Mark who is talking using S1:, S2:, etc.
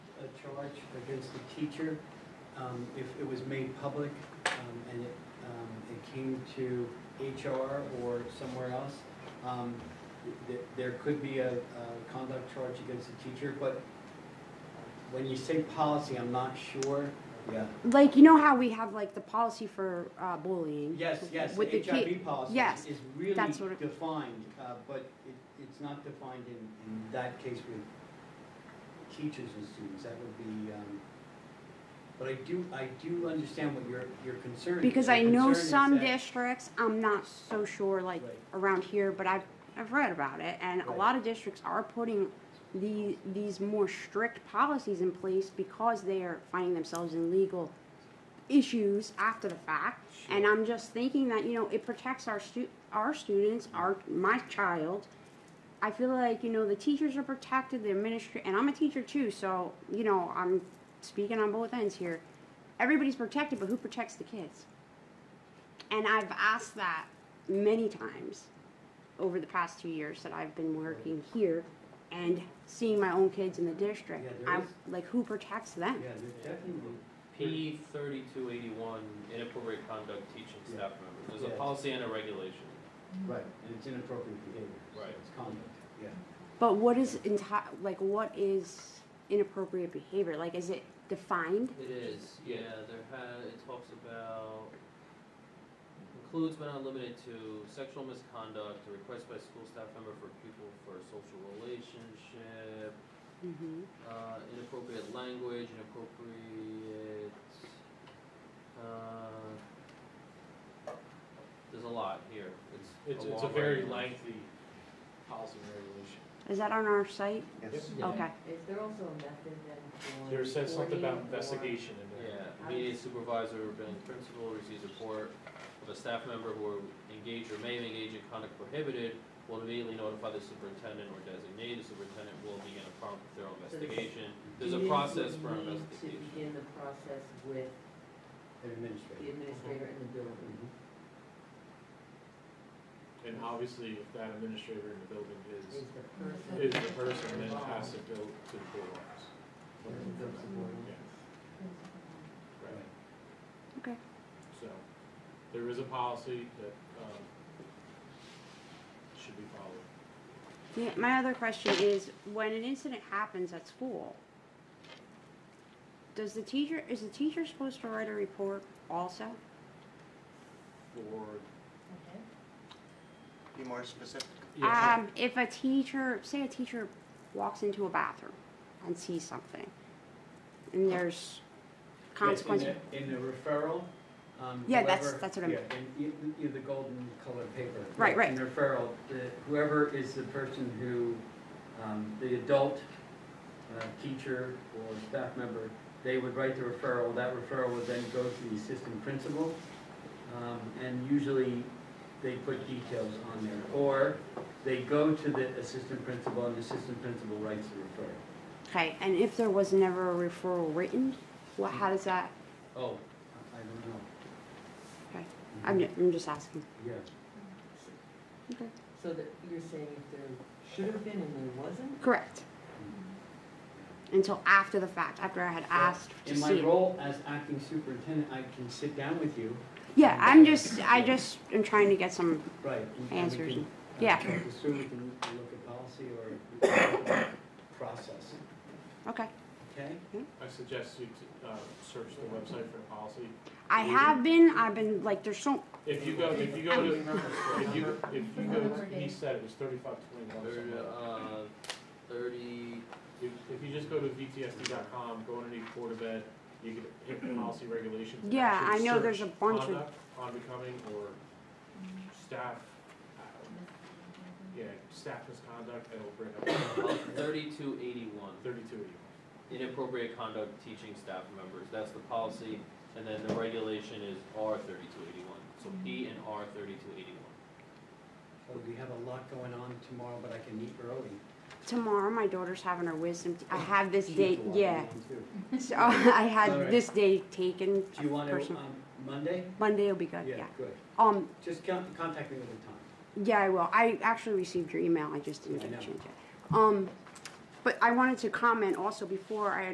S1: charge against the teacher, um, if it was made public, um, and it, um, it came to HR or somewhere else, um, th- there could be a, a conduct charge against the teacher, but when you say policy, I'm not sure.
S2: Yeah.
S3: Like, you know how we have like the policy for uh, bullying?
S1: Yes, yes,
S3: With the
S1: the
S3: kid-
S1: HIV policy
S3: yes,
S1: is really
S3: that's what it-
S1: defined, uh, but it, it's not defined in, in that case with teachers and students, that would be, um, but I do, I do understand what your, your concern is.
S3: Because
S1: Your
S3: I know
S1: concern is
S3: some
S1: that-
S3: districts, I'm not so sure, like
S1: Right.
S3: around here, but I've, I've read about it, and a
S1: Right.
S3: lot of districts are putting the, these more strict policies in place because they are finding themselves in legal issues after the fact. And
S1: Sure.
S3: I'm just thinking that, you know, it protects our stu- our students, our, my child. I feel like, you know, the teachers are protected, the administration, and I'm a teacher too, so, you know, I'm speaking on both ends here. Everybody's protected, but who protects the kids? And I've asked that many times over the past two years that I've been working here and seeing my own kids in the district.
S1: Yeah, there
S3: I'm
S1: is-
S3: like, who protects them?
S1: Yeah, there's definitely,
S4: P thirty-two eighty-one, inappropriate conduct teaching staff members, there's
S1: Yeah.
S4: a policy and a regulation.
S1: right, and it's inappropriate behavior. so
S4: Right.
S1: It's conduct, yeah.
S3: But what is enti- like what is inappropriate behavior? Like is it defined?
S4: It is, yeah, there had, it talks about, includes but not limited to sexual misconduct, a request by school staff member for pupil for a social relationship,
S3: Mm-hmm.
S4: uh, inappropriate language, inappropriate, uh, there's a lot here, it's
S5: It's,
S4: a
S5: it's a
S4: long
S5: very
S4: regulation.
S5: lengthy policy and regulation.
S3: Is that on our site?
S2: Yes.
S4: Yeah.
S3: Okay.
S6: Is there also a method then for?
S5: There says something about
S6: reporting or-
S5: investigation in there.
S4: Yeah, media supervisor, or building principal receives report of a staff member who engaged or may engage in conduct prohibited, will immediately notify the superintendent or designate, the superintendent will begin a prompt thorough investigation. There's a
S6: Students
S4: process
S6: would
S4: for
S6: need
S4: investigation.
S6: To begin the process with
S1: An
S6: the
S1: administrator.
S6: administrator in the building.
S1: Mhm.
S5: And obviously, if that administrator in the building
S6: Is
S5: is,
S6: the person.
S5: is the person, then it
S6: involved
S5: has to go to the board office.
S6: with the board
S5: Yeah. Right,
S3: Okay.
S5: so, there is a policy that, um, should be followed.
S3: Yeah, my other question is when an incident happens at school, does the teacher is the teacher supposed to write a report also?
S5: For,
S2: Be more specific.
S5: yeah,
S3: Um, if a teacher, say a teacher walks into a bathroom and sees something and there's consequences.
S1: Yeah, In the in the referral, um,
S3: Yeah, that's-
S1: whoever-
S3: that's what I'm-
S1: Yeah, and you, you, the golden colored paper.
S3: Right, right.
S1: In the referral, the, whoever is the person who, um, the adult, uh, teacher or staff member, they would write the referral, that referral would then go to the assistant principal. Um, and usually they put details on there, or they go to the assistant principal and the assistant principal writes the referral.
S3: Okay, and if there was never a referral written, what, how does that,
S1: Oh, I I don't know. Mm-hmm.
S3: okay, I'm, ju- I'm just asking.
S1: Yeah.
S3: Okay.
S6: So that, you're saying if there should have been and there wasn't?
S3: Correct. Mm-hmm. Until after the fact, after I had asked to
S1: In my
S3: see it.
S1: role as acting superintendent, I can sit down with you.
S3: Yeah, I'm just, I just am trying to get some,
S1: Right. and- and we
S3: Answers.
S1: can, uh,
S3: Yeah.
S1: talk this through. we can look at policy or we can look at process,
S3: okay.
S1: okay?
S5: I suggest you, to, uh, search the website for the policy.
S3: I have been, I've been, like, there's so,
S5: If you go, if you go to, if you, if you go, to- he said it was thirty-five
S4: Thirty,
S5: twenty-one.
S4: uh, thirty,
S5: If, if you just go to VTSD.com, go underneath Board of Ed, you can hit the policy regulations. and
S3: yeah, I
S5: actually
S3: know
S5: search
S3: there's a bunch of,
S5: Conduct, unbecoming, or staff, uh, yeah, staff misconduct, and it'll bring up
S4: uh, thirty-two eighty-one,
S5: thirty-two of you.
S4: inappropriate conduct teaching staff members, that's the policy. And then the regulation is R thirty-two eighty-one, so P and R thirty-two eighty-one.
S1: Oh, we have a lot going on tomorrow, but I can meet early.
S3: tomorrow, my daughter's having her wisdom, te- I have this
S1: She's
S3: date,
S1: the one
S3: yeah.
S1: going too.
S3: So I had
S1: Alright.
S3: this day taken,
S1: Do you want to,
S3: Person.
S1: um, Monday?
S3: Monday will be good, yeah.
S1: Good.
S3: Um,
S1: Just con- contact me with a time.
S3: Yeah, I will. I actually received your email. I just didn't
S1: Yeah, I
S3: get
S1: know.
S3: to change it. Um, but I wanted to comment also before I